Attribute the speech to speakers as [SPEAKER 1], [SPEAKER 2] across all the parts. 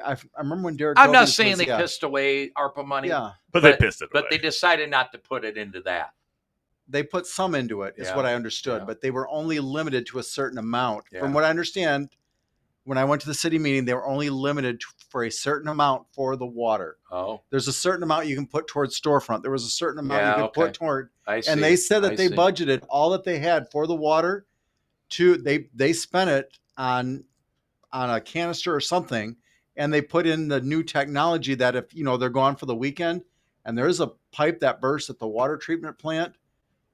[SPEAKER 1] I, f- I remember when Derek.
[SPEAKER 2] I'm not
[SPEAKER 1] Belvins
[SPEAKER 2] saying
[SPEAKER 1] was-
[SPEAKER 2] they
[SPEAKER 1] yeah,
[SPEAKER 2] pissed away ARPA money,
[SPEAKER 1] Yeah,
[SPEAKER 3] but,
[SPEAKER 2] But-
[SPEAKER 3] they pissed it
[SPEAKER 2] but they
[SPEAKER 3] away.
[SPEAKER 2] decided not to put it into that.
[SPEAKER 1] they put some into it, is
[SPEAKER 2] Yeah,
[SPEAKER 1] what I understood,
[SPEAKER 2] yeah.
[SPEAKER 1] but they were only limited to a certain amount.
[SPEAKER 2] Yeah.
[SPEAKER 1] From what I understand, when I went to the city meeting, they were only limited to, for a certain amount for the water.
[SPEAKER 2] Oh,
[SPEAKER 1] There's a certain amount you can put towards storefront. There was a certain amount
[SPEAKER 2] Yeah,
[SPEAKER 1] you could
[SPEAKER 2] okay.
[SPEAKER 1] put toward,
[SPEAKER 2] I see.
[SPEAKER 1] and they said that
[SPEAKER 2] I
[SPEAKER 1] they
[SPEAKER 2] see.
[SPEAKER 1] budgeted all that they had for the water. To they they spent it on on a canister or something, and they put in the new technology that if you know they're gone for the weekend and there is a pipe that bursts at the water treatment plant,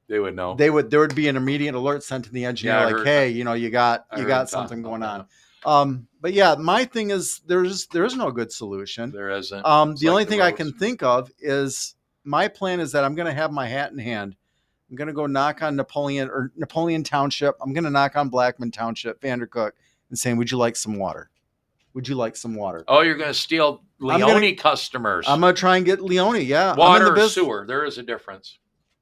[SPEAKER 2] they would know.
[SPEAKER 1] they would there would be an immediate alert sent to the engineer
[SPEAKER 2] Oh. Yeah, I
[SPEAKER 1] like,
[SPEAKER 2] heard-
[SPEAKER 1] hey, you know, you got
[SPEAKER 2] I
[SPEAKER 1] you
[SPEAKER 2] heard
[SPEAKER 1] got
[SPEAKER 2] that.
[SPEAKER 1] something going on. Um, but yeah, my thing is there's there is no good solution.
[SPEAKER 2] There isn't.
[SPEAKER 1] Um,
[SPEAKER 2] It's
[SPEAKER 1] the
[SPEAKER 2] like
[SPEAKER 1] only
[SPEAKER 2] the
[SPEAKER 1] thing I can
[SPEAKER 2] roads.
[SPEAKER 1] think of is my plan is that I'm going to have my hat in hand. I'm going to go knock on Napoleon or Napoleon Township. I'm going to knock on Blackman Township, Vandercook, and saying, "Would you like some water? Would you like some water?"
[SPEAKER 2] oh, you're going to steal
[SPEAKER 1] I'm
[SPEAKER 2] Leone
[SPEAKER 1] gonna-
[SPEAKER 2] customers.
[SPEAKER 1] I'm going to try and get Leone. Yeah, I'm in
[SPEAKER 2] Water
[SPEAKER 1] the
[SPEAKER 2] or
[SPEAKER 1] bus-
[SPEAKER 2] sewer. There is a difference.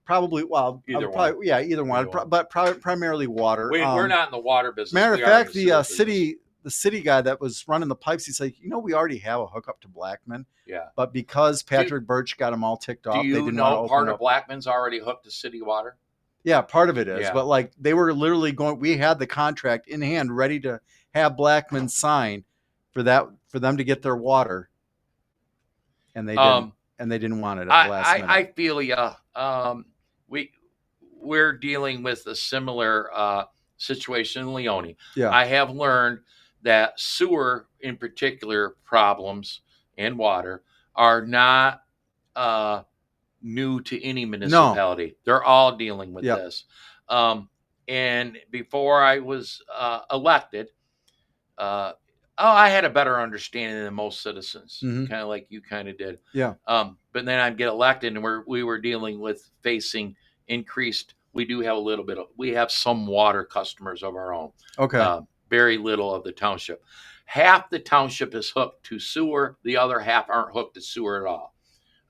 [SPEAKER 1] Probably. Well, I
[SPEAKER 2] Either
[SPEAKER 1] would probably- Yeah, either one.
[SPEAKER 2] Either
[SPEAKER 1] Pro-
[SPEAKER 2] one.
[SPEAKER 1] but pri- primarily water.
[SPEAKER 2] We, we're
[SPEAKER 1] Um,
[SPEAKER 2] not in the water business.
[SPEAKER 1] Matter of
[SPEAKER 2] We are in
[SPEAKER 1] fact, the
[SPEAKER 2] sewer
[SPEAKER 1] uh,
[SPEAKER 2] business.
[SPEAKER 1] city the city guy that was running the pipes, he's like, you know, we already have a hookup to Blackman,
[SPEAKER 2] Yeah.
[SPEAKER 1] but because Patrick Birch got them all ticked
[SPEAKER 2] Do
[SPEAKER 1] off, they
[SPEAKER 2] you
[SPEAKER 1] didn't want to
[SPEAKER 2] know
[SPEAKER 1] open
[SPEAKER 2] part
[SPEAKER 1] up.
[SPEAKER 2] of Blackman's already hooked to city water?
[SPEAKER 1] Yeah, part of it is,
[SPEAKER 2] Yeah.
[SPEAKER 1] but like they were literally going. We had the contract in hand, ready to have Blackman sign for that for them to get their water, and they didn't,
[SPEAKER 2] Um,
[SPEAKER 1] and they didn't want it at the
[SPEAKER 2] I,
[SPEAKER 1] last minute.
[SPEAKER 2] I, I feel ya. Um, we we're dealing with a similar uh, situation in Leone.
[SPEAKER 1] Yeah.
[SPEAKER 2] I have learned that sewer, in particular, problems and water are not uh, new to any municipality. They're all dealing with
[SPEAKER 1] Yep.
[SPEAKER 2] this. Um, and before I was uh, elected, uh, oh, I had a better understanding than most citizens,
[SPEAKER 1] Mhm.
[SPEAKER 2] kind of like you kind of did.
[SPEAKER 1] Yeah.
[SPEAKER 2] Um, but then I'd get elected, and we're we were dealing with facing increased. We do have a little bit of we have some water customers of our own.
[SPEAKER 1] okay,
[SPEAKER 2] Um, very little of the township. Half the township is hooked to sewer. The other half aren't hooked to sewer at all.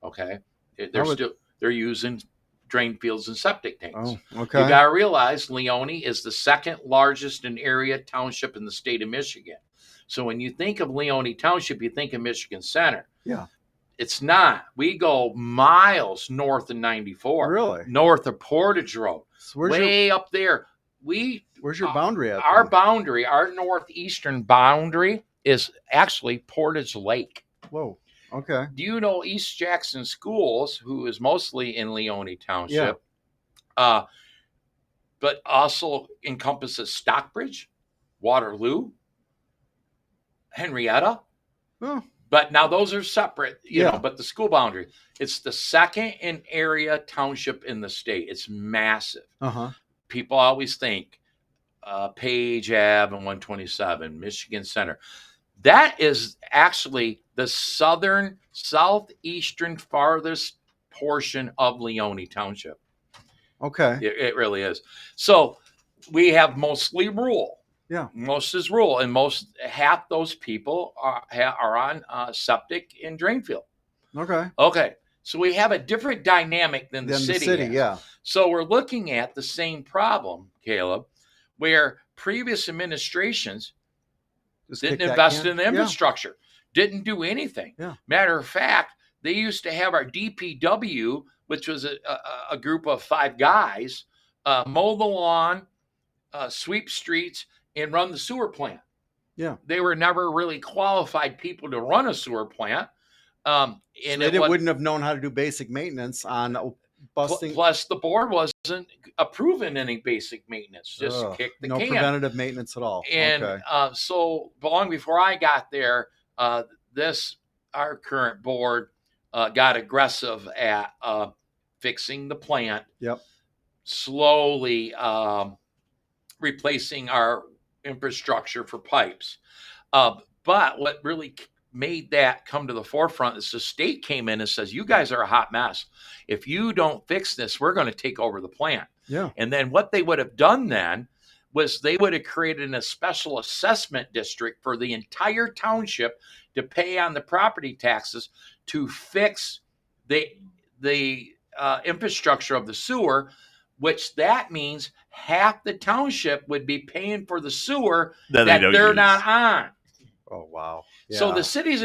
[SPEAKER 2] Okay, They- they're
[SPEAKER 1] I would-
[SPEAKER 2] still they're using drain fields and septic tanks.
[SPEAKER 1] oh,
[SPEAKER 2] You
[SPEAKER 1] okay,
[SPEAKER 2] got to realize Leone is the second largest in area township in the state of Michigan. So when you think of Leone Township, you think of Michigan Center.
[SPEAKER 1] Yeah.
[SPEAKER 2] It's not. We go miles north of 94,
[SPEAKER 1] really?
[SPEAKER 2] north of Portage Road,
[SPEAKER 1] So where's your
[SPEAKER 2] way up there. We,
[SPEAKER 1] where's your
[SPEAKER 2] uh,
[SPEAKER 1] boundary at?
[SPEAKER 2] our
[SPEAKER 1] then?
[SPEAKER 2] boundary, our northeastern boundary is actually Portage Lake.
[SPEAKER 1] Whoa, okay,
[SPEAKER 2] Do you know East Jackson Schools, who is mostly in Leone Township, uh, but also encompasses Stockbridge, Waterloo, Henrietta?
[SPEAKER 1] well,
[SPEAKER 2] But now those are separate, you
[SPEAKER 1] Yeah.
[SPEAKER 2] know, but the school boundary. It's the second in area township in the state. It's massive
[SPEAKER 1] uh huh,
[SPEAKER 2] people always think uh, Page Ave and 127, Michigan Center. That is actually the southern, southeastern, farthest portion of Leone Township.
[SPEAKER 1] okay,
[SPEAKER 2] It, it really is. So we have mostly rural.
[SPEAKER 1] Yeah.
[SPEAKER 2] most is rural, and most half those people are ha- are on uh, septic and drain field.
[SPEAKER 1] okay.
[SPEAKER 2] Okay, so we have a different dynamic than
[SPEAKER 1] Then
[SPEAKER 2] the
[SPEAKER 1] the
[SPEAKER 2] city.
[SPEAKER 1] city,
[SPEAKER 2] has.
[SPEAKER 1] yeah,
[SPEAKER 2] So we're looking at the same problem, Caleb, where previous administrations
[SPEAKER 1] Just kick
[SPEAKER 2] didn't
[SPEAKER 1] that
[SPEAKER 2] invest
[SPEAKER 1] can-
[SPEAKER 2] in the
[SPEAKER 1] yeah,
[SPEAKER 2] infrastructure, didn't do anything.
[SPEAKER 1] Yeah.
[SPEAKER 2] Matter of fact, they used to have our DPW, which was a, a, a group of five guys, uh, mow the lawn, uh, sweep streets, and run the sewer plant.
[SPEAKER 1] Yeah.
[SPEAKER 2] They were never really qualified people to run a sewer plant. Um,
[SPEAKER 1] And
[SPEAKER 2] and
[SPEAKER 1] they
[SPEAKER 2] it
[SPEAKER 1] didn't-
[SPEAKER 2] wa-
[SPEAKER 1] wouldn't have known how to do basic maintenance on a
[SPEAKER 2] pl-
[SPEAKER 1] busting.
[SPEAKER 2] plus, the board wasn't approving any basic maintenance, just
[SPEAKER 1] Ugh,
[SPEAKER 2] kick the
[SPEAKER 1] no
[SPEAKER 2] can.
[SPEAKER 1] preventative maintenance at all.
[SPEAKER 2] And
[SPEAKER 1] okay.
[SPEAKER 2] uh, so, but long before I got there, uh, this our current board uh, got aggressive at uh, fixing the plant.
[SPEAKER 1] Yep.
[SPEAKER 2] Slowly um, replacing our infrastructure for pipes. Uh, but what really c- made that come to the forefront is the state came in and says, "You guys are a hot mess. If you don't fix this, we're going to take over the plant."
[SPEAKER 1] Yeah.
[SPEAKER 2] And then what they would have done then was they would have created a special assessment district for the entire township to pay on the property taxes to fix the the uh, infrastructure of the sewer, which that means half the township would be paying for the sewer
[SPEAKER 3] that
[SPEAKER 2] that
[SPEAKER 3] they don't
[SPEAKER 2] they're
[SPEAKER 3] use.
[SPEAKER 2] not on.
[SPEAKER 4] Oh wow.
[SPEAKER 1] So
[SPEAKER 4] Yeah.
[SPEAKER 1] the cities